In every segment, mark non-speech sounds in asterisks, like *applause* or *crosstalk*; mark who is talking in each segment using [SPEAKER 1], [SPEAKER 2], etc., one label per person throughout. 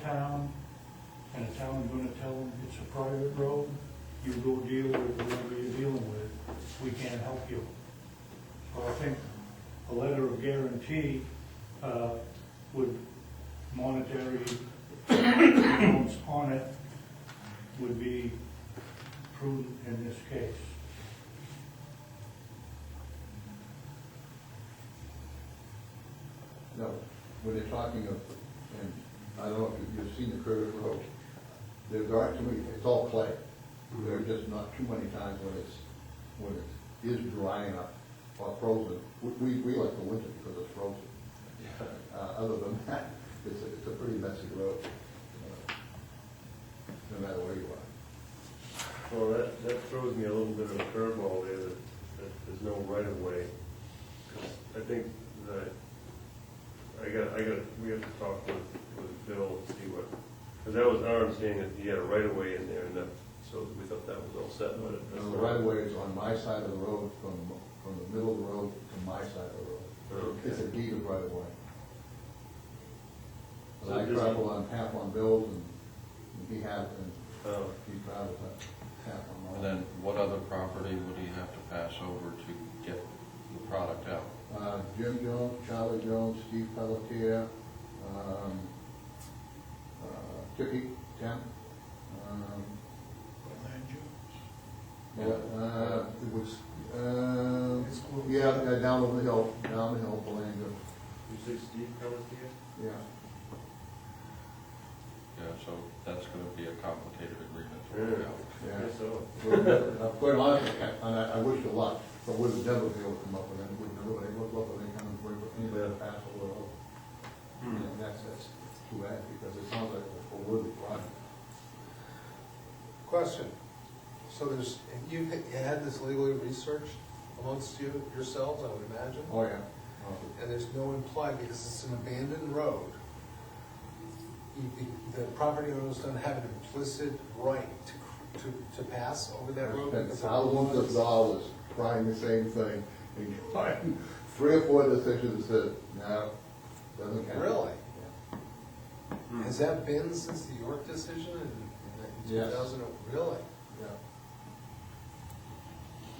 [SPEAKER 1] town, and the town's gonna tell them it's a private road, you go deal with whoever you're dealing with, we can't help you. So I think a letter of guarantee, uh, with monetary amounts on it would be prudent in this case.
[SPEAKER 2] No, when they're talking of, and I don't know if you've- you've seen the curved road, there's actually, it's all clay. There are just not too many times when it's, when it is dry enough or frozen. We, we, we like the winter because it's frozen. Uh, other than that, *laughs* it's, a- it's a pretty messy road, uh, no matter where you are.
[SPEAKER 3] Well, that, that throws me a little bit of a curveball there, that, that there's no right of way. 'Cause I think that, I got, I got, we have to talk with, with Bill and see what, because that was our understanding that he had a right of way in there, and that, so we thought that was all set, but it- that's
[SPEAKER 2] And the
[SPEAKER 3] not.
[SPEAKER 2] right of way is on my side of the road from, from the middle of the road to my side of the road.
[SPEAKER 3] Okay.
[SPEAKER 2] It's a deed of right of way. But
[SPEAKER 3] So
[SPEAKER 2] I
[SPEAKER 3] this-
[SPEAKER 2] travel on half on bills and he has, and
[SPEAKER 3] Oh,
[SPEAKER 2] he travels on half on mine.
[SPEAKER 4] And then what other property would he have to pass over to get the product out?
[SPEAKER 2] Uh, Jim Jones, Charlie Jones, Steve Pelletier, um, uh, Tippy, Tim, um, yeah, uh, it was, uh,
[SPEAKER 1] It's close.
[SPEAKER 2] yeah, uh, down the hill, down the hill, Belanger,
[SPEAKER 3] you say Steve Pelletier?
[SPEAKER 2] yeah.
[SPEAKER 4] Yeah, so that's gonna be a complicated agreement to work out.
[SPEAKER 2] Yeah.
[SPEAKER 3] Yes, so.
[SPEAKER 2] Well, Quite honestly, and I, I wish you luck, but would have never be able to come up with any, would never, they look up with any kind of, way for anybody to pass over. at all.
[SPEAKER 3] Hmm.
[SPEAKER 2] And that's, that's too bad, because it sounds like a worthy project.
[SPEAKER 5] Question. So there's, you've had this legally researched amongst you, yourselves, I would imagine,
[SPEAKER 2] Oh, yeah.
[SPEAKER 5] and there's no implied, because it's an abandoned road. You- The the property owners don't have an implicit right to, cr- to, to pass over that road.
[SPEAKER 2] Spent
[SPEAKER 5] because
[SPEAKER 2] thousands of dollars trying the same thing, and gotten three or four decisions that said, no, doesn't count.
[SPEAKER 5] Really?
[SPEAKER 2] Yeah.
[SPEAKER 3] Hmm.
[SPEAKER 5] Has that been since the York decision in two
[SPEAKER 2] Yes.
[SPEAKER 5] thousand? Really?
[SPEAKER 2] Yeah.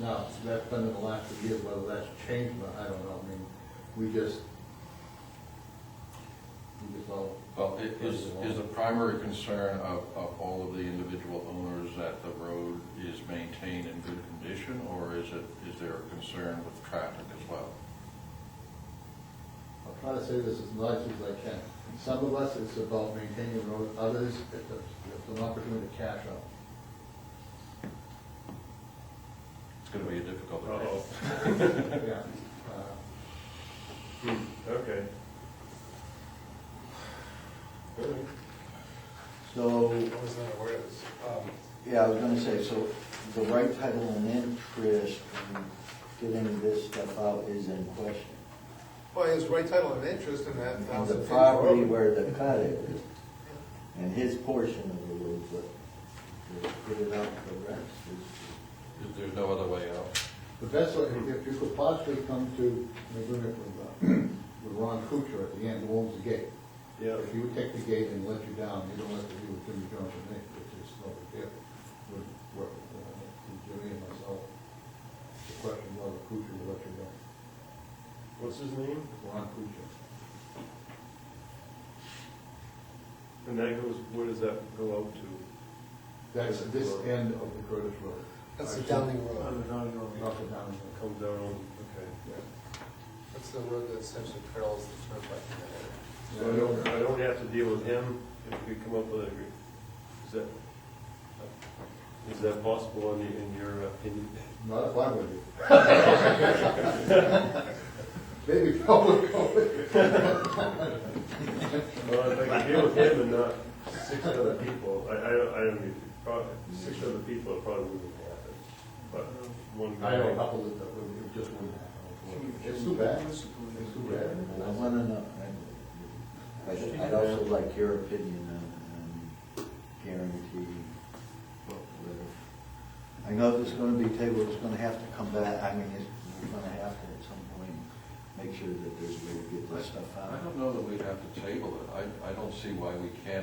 [SPEAKER 2] Now, that's been in the last few years, whether that's changed, but I don't know, I mean, we just, we just all.
[SPEAKER 4] Well, i- is, is the primary concern of, of all of the individual owners that the road is maintained in good condition? Or is it, is there a concern with traffic as well?
[SPEAKER 2] I'll try to say this as nice as I can. Some of us, it's about maintaining the road, others, it's, a- it's an opportunity to cash
[SPEAKER 6] *laughs*
[SPEAKER 2] out.
[SPEAKER 4] It's gonna be a difficult agreement.
[SPEAKER 3] Uh-oh.
[SPEAKER 2] Yeah. Uh,
[SPEAKER 3] Hmm, Okay. All right.
[SPEAKER 6] So,
[SPEAKER 5] I was not aware of this. Um,
[SPEAKER 6] yeah, I was gonna say, so the right title and interest in getting this stuff out is in question.
[SPEAKER 5] Well, his right title and interest in that
[SPEAKER 6] And
[SPEAKER 5] thousand
[SPEAKER 6] the
[SPEAKER 5] feet of road.
[SPEAKER 6] property where the cut is, and his portion of the road, but to put it out for the rest is,
[SPEAKER 4] Is there no other way out?
[SPEAKER 2] But that's what, if you could possibly come to an agreement with, uh, with Ron Kuchar at the end, who owns the gate.
[SPEAKER 3] Yeah.
[SPEAKER 2] If he would take the gate and let you down, you don't have to do with Jimmy Jones and me, which is no big deal. Would work uh, with Jimmy and myself. The question whether Kuchar will let you down.
[SPEAKER 3] What's his name?
[SPEAKER 2] Ron Kuchar.
[SPEAKER 3] And that goes, where does that go out to?
[SPEAKER 2] That's this end of the Curtis Road.
[SPEAKER 5] That's the Downing Road.
[SPEAKER 2] Not the Downing Road.
[SPEAKER 3] Comes down on, okay.
[SPEAKER 2] Yeah.
[SPEAKER 5] That's the road that essentially parallels the turnpike in that area.
[SPEAKER 3] So I don't, I don't have to deal with him if we come up with a, is that, is that possible in, in your opinion?
[SPEAKER 2] Not if I were you. *laughs* Maybe Paul would go with you.
[SPEAKER 3] Well, if I can deal with him and not six other people, I, I don't, I don't need, probably, six other people probably wouldn't happen. But one
[SPEAKER 2] I
[SPEAKER 3] guy.
[SPEAKER 2] know a couple that, that would- it just wouldn't happen. It's too bad, it's too bad.
[SPEAKER 6] I wanna know. I'd- I'd also like your opinion on, on guaranteeing what we're- I know this is gonna be tabled, it's gonna have to come back, I mean, it's, we're gonna have to at some point make sure that there's a way to get this stuff
[SPEAKER 4] I
[SPEAKER 6] out.
[SPEAKER 4] don't know that we'd have to table it. I, I don't see why we can't